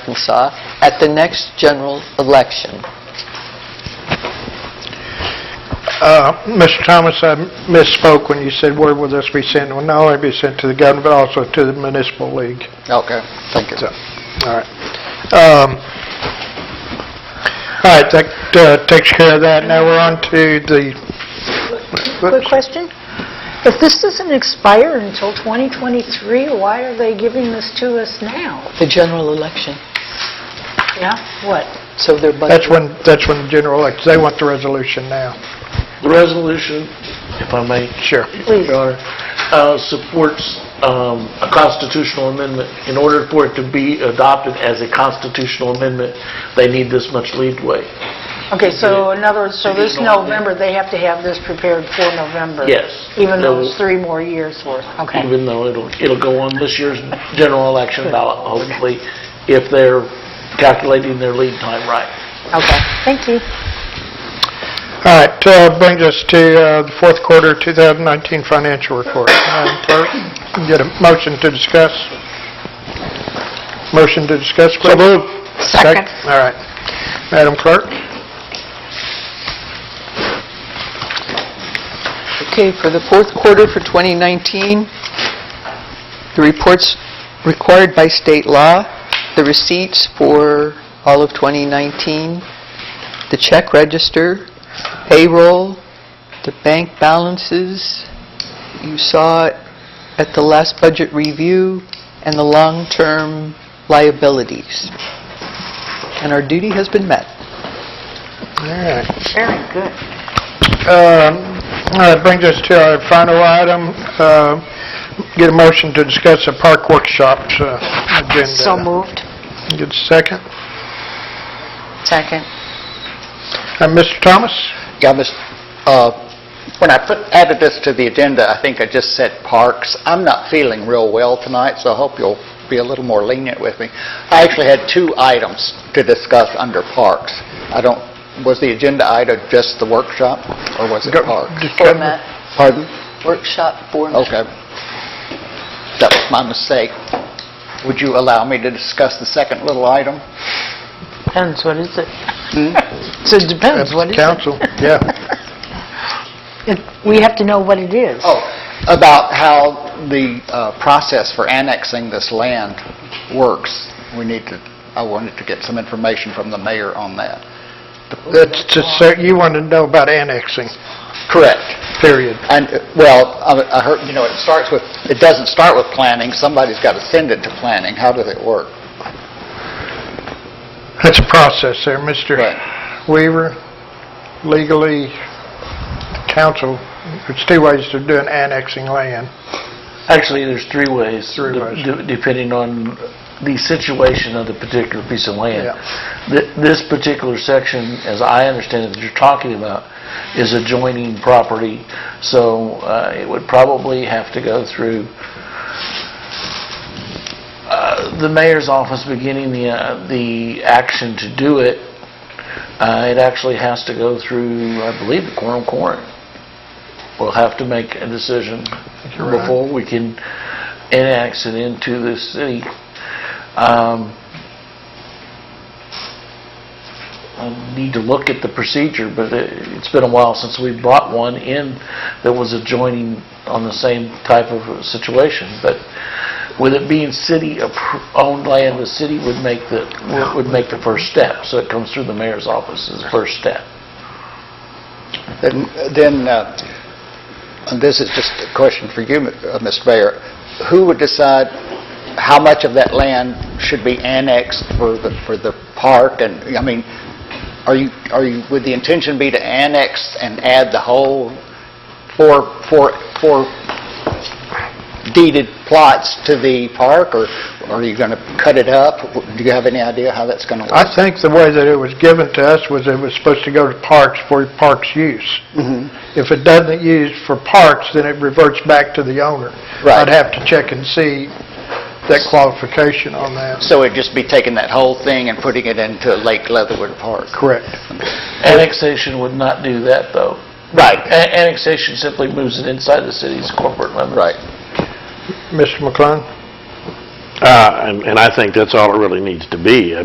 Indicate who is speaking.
Speaker 1: Arkansas at the next general election.
Speaker 2: Uh, Mr. Thomas, I misspoke when you said where will this be sent? It will not only be sent to the governor, but also to the municipal league.
Speaker 1: Okay, thank you.
Speaker 2: So, all right. Um, All right, that uh, takes care of that. Now we're on to the...
Speaker 3: Quick question. If this doesn't expire until 2023, why are they giving this to us now?
Speaker 1: The general election,
Speaker 3: Yeah, what?
Speaker 1: so their budget...
Speaker 2: That's when, that's when the general elects. They want the resolution now.
Speaker 4: The resolution, if I may,
Speaker 2: Sure.
Speaker 3: Please.
Speaker 4: Your Honor, uh, supports um, a constitutional amendment. In order for it to be adopted as a constitutional amendment, they need this much leadway.
Speaker 3: Okay, so in other words, so this
Speaker 4: Did you know that?
Speaker 3: November, they have to have this prepared for November?
Speaker 4: Yes.
Speaker 3: Even though it's
Speaker 4: No.
Speaker 3: three more years worth? Okay.
Speaker 4: Even though it'll, it'll go on this year's general election ballot, hopefully, if they're calculating their lead time right.
Speaker 3: Okay, thank you.
Speaker 2: All right, uh, brings us to uh, the fourth quarter 2019 financial report. Madam Clerk, get a motion to discuss? Motion to discuss, please? So
Speaker 3: Second.
Speaker 2: All right. Madam Clerk?
Speaker 1: Okay, for the fourth quarter for 2019, the reports required by state law, the receipts for all of 2019, the check register, payroll, the bank balances, you saw it at the last budget review, and the long-term liabilities. And our duty has been met.
Speaker 2: All right.
Speaker 3: Very good.
Speaker 2: Um, All right, brings us to our final item. uh, Get a motion to discuss the park workshops uh, agenda.
Speaker 3: So moved.
Speaker 2: Get a second.
Speaker 3: Second.
Speaker 2: Uh, Mr. Thomas?
Speaker 5: Yeah, Ms., uh, when I put, added this to the agenda, I think I just said parks. I'm not feeling real well tonight, so I hope you'll be a little more lenient with me. I actually had two items to discuss under parks. I don't, was the agenda item just the workshop, or was it parks?
Speaker 1: Format,
Speaker 5: Pardon?
Speaker 1: workshop format.
Speaker 5: Okay. That was my mistake. Would you allow me to discuss the second little item?
Speaker 3: Depends, what is it? So it depends, what is it?
Speaker 2: Council, yeah.
Speaker 3: It- We have to know what it is.
Speaker 5: Oh, about how the uh, process for annexing this land works. We need to, I wanted to get some information from the mayor on that.
Speaker 2: That's to say, you want to know about annexing,
Speaker 5: Correct.
Speaker 2: period.
Speaker 5: And, uh, well, I I heard, you know, it starts with, it doesn't start with planning, somebody's got to send it to planning. How does it work?
Speaker 2: That's a process there, Mr.
Speaker 5: Right.
Speaker 2: Weaver. Legally, council, there's two ways to do an annexing land.
Speaker 4: Actually, there's three ways,
Speaker 2: Three
Speaker 4: de-
Speaker 2: ways.
Speaker 4: de- depending on the situation of the particular piece of land.
Speaker 2: Yeah.
Speaker 4: Th- This particular section, as I understand it, that you're talking about, is adjoining property, so uh, it would probably have to go through uh, the mayor's office beginning the, uh, the action to do it. Uh, It actually has to go through, I believe, the quorum court. We'll have to make a decision
Speaker 2: you're right.
Speaker 4: before we can annex it into the city. Um, I need to look at the procedure, but it- it's been a while since we brought one in that was adjoining on the same type of situation. But with it being city-owned land, the city would make the, would make the first step. So it comes through the mayor's office as the first step.
Speaker 5: Then, then, uh, and this is just a question for you, uh, Mr. Mayor, who would decide how much of that land should be annexed for the, for the park? And, I mean, are you, are you, would the intention be to annex and add the whole four, four, four deeded plots to the park, or are you going to cut it up? Do you have any idea how that's going to
Speaker 2: I
Speaker 5: work?
Speaker 2: think the way that it was given to us was it was supposed to go to parks for parks use.
Speaker 5: Mm-hmm.
Speaker 2: If it doesn't use for parks, then it reverts back to the owner.
Speaker 5: Right.
Speaker 2: I'd have to check and see that qualification on that.
Speaker 5: So it'd just be taking that whole thing and putting it into Lake Leatherwood Park?
Speaker 2: Correct.
Speaker 4: Annexation would not do that, though.
Speaker 5: Right.
Speaker 4: A- Annexation simply moves it inside the city's corporate limits.
Speaker 5: Right.
Speaker 2: Mr. McClung?
Speaker 6: Uh, and and I think that's all it really needs to be. I